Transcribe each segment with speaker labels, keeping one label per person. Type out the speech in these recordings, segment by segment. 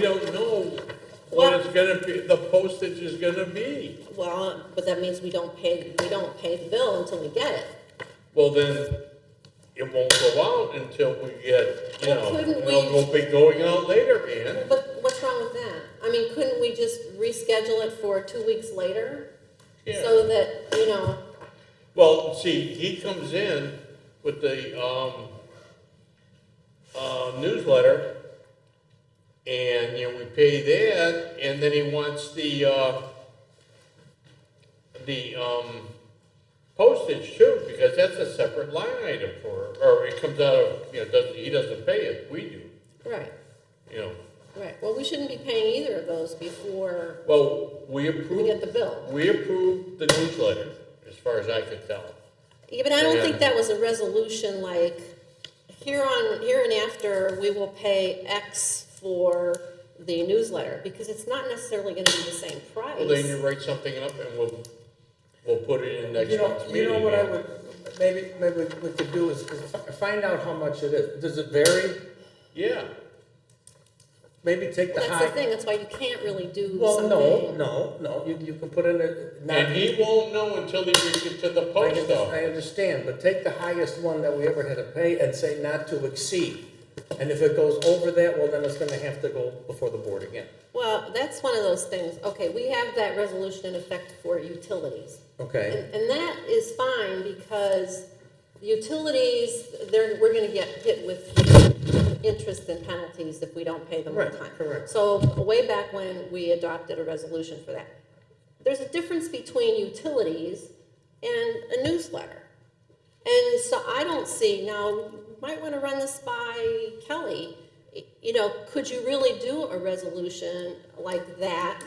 Speaker 1: don't know what it's gonna be, the postage is gonna be.
Speaker 2: Well, but that means we don't pay, we don't pay the bill until we get it.
Speaker 1: Well, then, it won't go out until we get, you
Speaker 2: Well,
Speaker 1: know,
Speaker 2: couldn't
Speaker 1: and it'll
Speaker 2: we-
Speaker 1: go- be going out later, Ann.
Speaker 2: But what's wrong with that? I mean, couldn't we just reschedule it for two weeks later?
Speaker 1: Yeah.
Speaker 2: So that, you know,
Speaker 1: Well, see, he comes in with the, um, uh, newsletter, and, you know, we pay that, and then he wants the, uh, the, um, postage too, because that's a separate line item for, or it comes out of, you know, doesn't, he doesn't pay it, we do,
Speaker 2: right,
Speaker 1: you know.
Speaker 2: right. Well, we shouldn't be paying either of those before
Speaker 1: Well, we
Speaker 2: we get
Speaker 1: approved,
Speaker 2: the bill.
Speaker 1: we approved the newsletter, as far as I could tell.
Speaker 2: Yeah, but I don't
Speaker 1: Yeah.
Speaker 2: think that was a resolution like, here on, here and after, we will pay X for the newsletter, because it's not necessarily gonna be the same price.
Speaker 1: Well, then you write something up and we'll, we'll put it in next
Speaker 3: You know,
Speaker 1: month's
Speaker 3: you
Speaker 1: meeting.
Speaker 3: know what I would, maybe, maybe we could do is is fi- find out how much it is. Does it vary?
Speaker 1: Yeah,
Speaker 3: Maybe take the
Speaker 2: That's the
Speaker 3: high.
Speaker 2: thing, that's why you can't really do
Speaker 3: Well, no,
Speaker 2: something.
Speaker 3: no, no, you, you can put in a, not.
Speaker 1: and he won't know until he reads it to the
Speaker 3: I
Speaker 1: post
Speaker 3: under-
Speaker 1: office.
Speaker 3: I understand, but take the highest one that we ever had to pay and say not to exceed. And if it goes over that, well, then it's gonna have to go before the board again.
Speaker 2: Well, that's one of those things, okay, we have that resolution in effect for utilities.
Speaker 3: Okay,
Speaker 2: And, and that is fine because utilities, they're, we're gonna get hit with interest and penalties if we don't pay them on
Speaker 3: Right,
Speaker 2: time.
Speaker 3: correct.
Speaker 2: So way back when, we adopted a resolution for that. There's a difference between utilities and a newsletter. And so I don't see, now, you might wanna run this by Kelly. Y- You know, could you really do a resolution like that,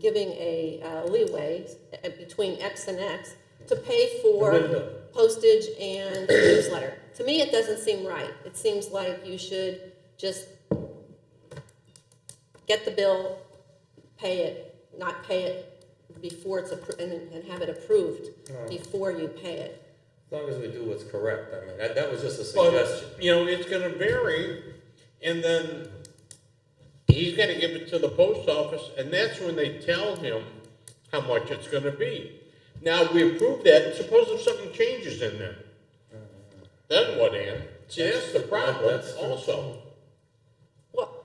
Speaker 2: giving a uh, leeway uh, between X and X to pay for
Speaker 3: The window.
Speaker 2: postage and newsletter? To me, it doesn't seem right. It seems like you should just get the bill, pay it, not pay it before it's approved, and and have it approved
Speaker 3: Oh.
Speaker 2: before you pay it.
Speaker 3: as long as we do what's correct, I mean, that, that was just a
Speaker 1: But,
Speaker 3: suggestion.
Speaker 1: you know, it's gonna vary, and then he's gonna give it to the post office, and that's when they tell him how much it's gonna be. Now, we approve that, suppose if something changes in there, then what, Ann? See, that's the problem
Speaker 3: Mm-hmm. That's-
Speaker 1: also.
Speaker 2: Well,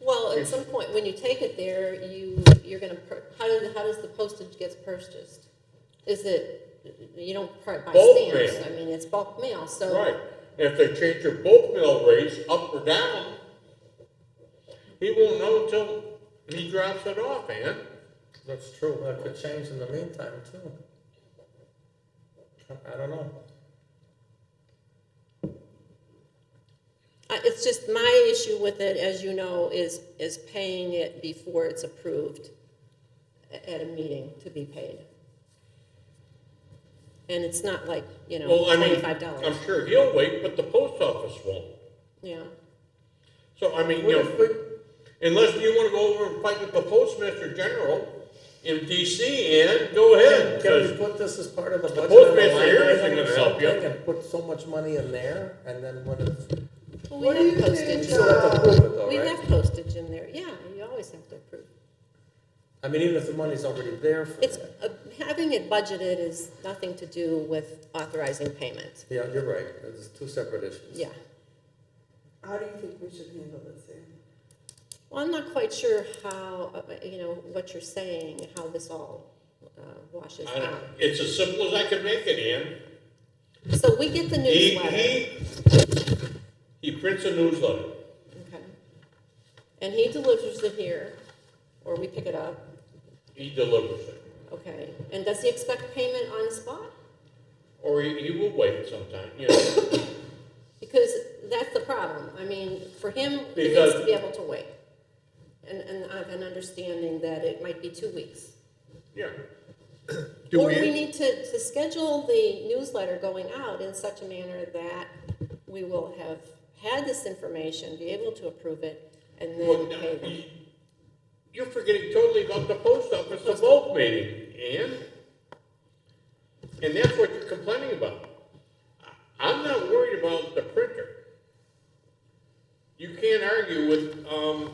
Speaker 2: well, at some point, when you take it there, you, you're gonna, pur- how does, how does the postage gets purchased? Is it, you don't part by
Speaker 1: Bulk
Speaker 2: stamps,
Speaker 1: mail.
Speaker 2: I mean, it's bulk mail, so.
Speaker 1: Right, and if they change your bulk mill rates up or down, he won't know until he drops it off, man.
Speaker 3: That's true, that could change in the meantime too. I- I don't know.
Speaker 2: Uh, It's just my issue with it, as you know, is, is paying it before it's approved a- at a meeting to be paid. And it's not like, you know,
Speaker 1: Well, I mean,
Speaker 2: twenty-five dollars,
Speaker 1: I'm sure he'll wait, but the post office won't.
Speaker 2: yeah.
Speaker 1: So, I mean,
Speaker 3: What
Speaker 1: you
Speaker 3: if
Speaker 1: know,
Speaker 3: we-
Speaker 1: unless you wanna go over and fight with the postmaster general in DC, and go ahead,
Speaker 3: Can we
Speaker 1: 'cause-
Speaker 3: put this as part of the budget?
Speaker 1: postmaster
Speaker 3: line
Speaker 1: here isn't
Speaker 3: item or
Speaker 1: gonna help you.
Speaker 3: something And put so much money in there, and then when it's,
Speaker 2: Well,
Speaker 4: What do
Speaker 2: we
Speaker 4: you
Speaker 2: have
Speaker 4: think,
Speaker 2: postage,
Speaker 3: you still have to approve it though,
Speaker 2: we have
Speaker 3: right?
Speaker 2: postage in there, yeah, you always have to approve.
Speaker 3: I mean, even if the money's already there for
Speaker 2: It's,
Speaker 3: that.
Speaker 2: uh, having it budgeted is nothing to do with authorizing payment,
Speaker 3: Yeah, you're right, it's two separate issues.
Speaker 2: yeah.
Speaker 4: How do you think we should handle this, Ann?
Speaker 2: Well, I'm not quite sure how, uh, you know, what you're saying, how this all uh, washes
Speaker 1: I don't,
Speaker 2: out.
Speaker 1: it's as simple as I can make it, Ann.
Speaker 2: So we get the
Speaker 1: He,
Speaker 2: newsletter,
Speaker 1: he, he prints a newsletter,
Speaker 2: okay? And he delivers it here, or we pick it up,
Speaker 1: he delivers it,
Speaker 2: okay? And does he expect payment on the spot?
Speaker 1: or he, he will wait sometime, you know.
Speaker 2: Because that's the problem. I mean, for him, he needs
Speaker 1: Because-
Speaker 2: to be able to wait. And, and I have an understanding that it might be two weeks.
Speaker 1: Yeah.
Speaker 2: Or we need to, to schedule the newsletter going out in such a manner that we will have had this information, be able to approve it, and
Speaker 1: Well,
Speaker 2: then
Speaker 1: no,
Speaker 2: pay them.
Speaker 1: you- You're forgetting totally about the post office, the bulk meeting, Ann. And that's what you're complaining about. I- I'm not worried about the printer. You can't argue with, um,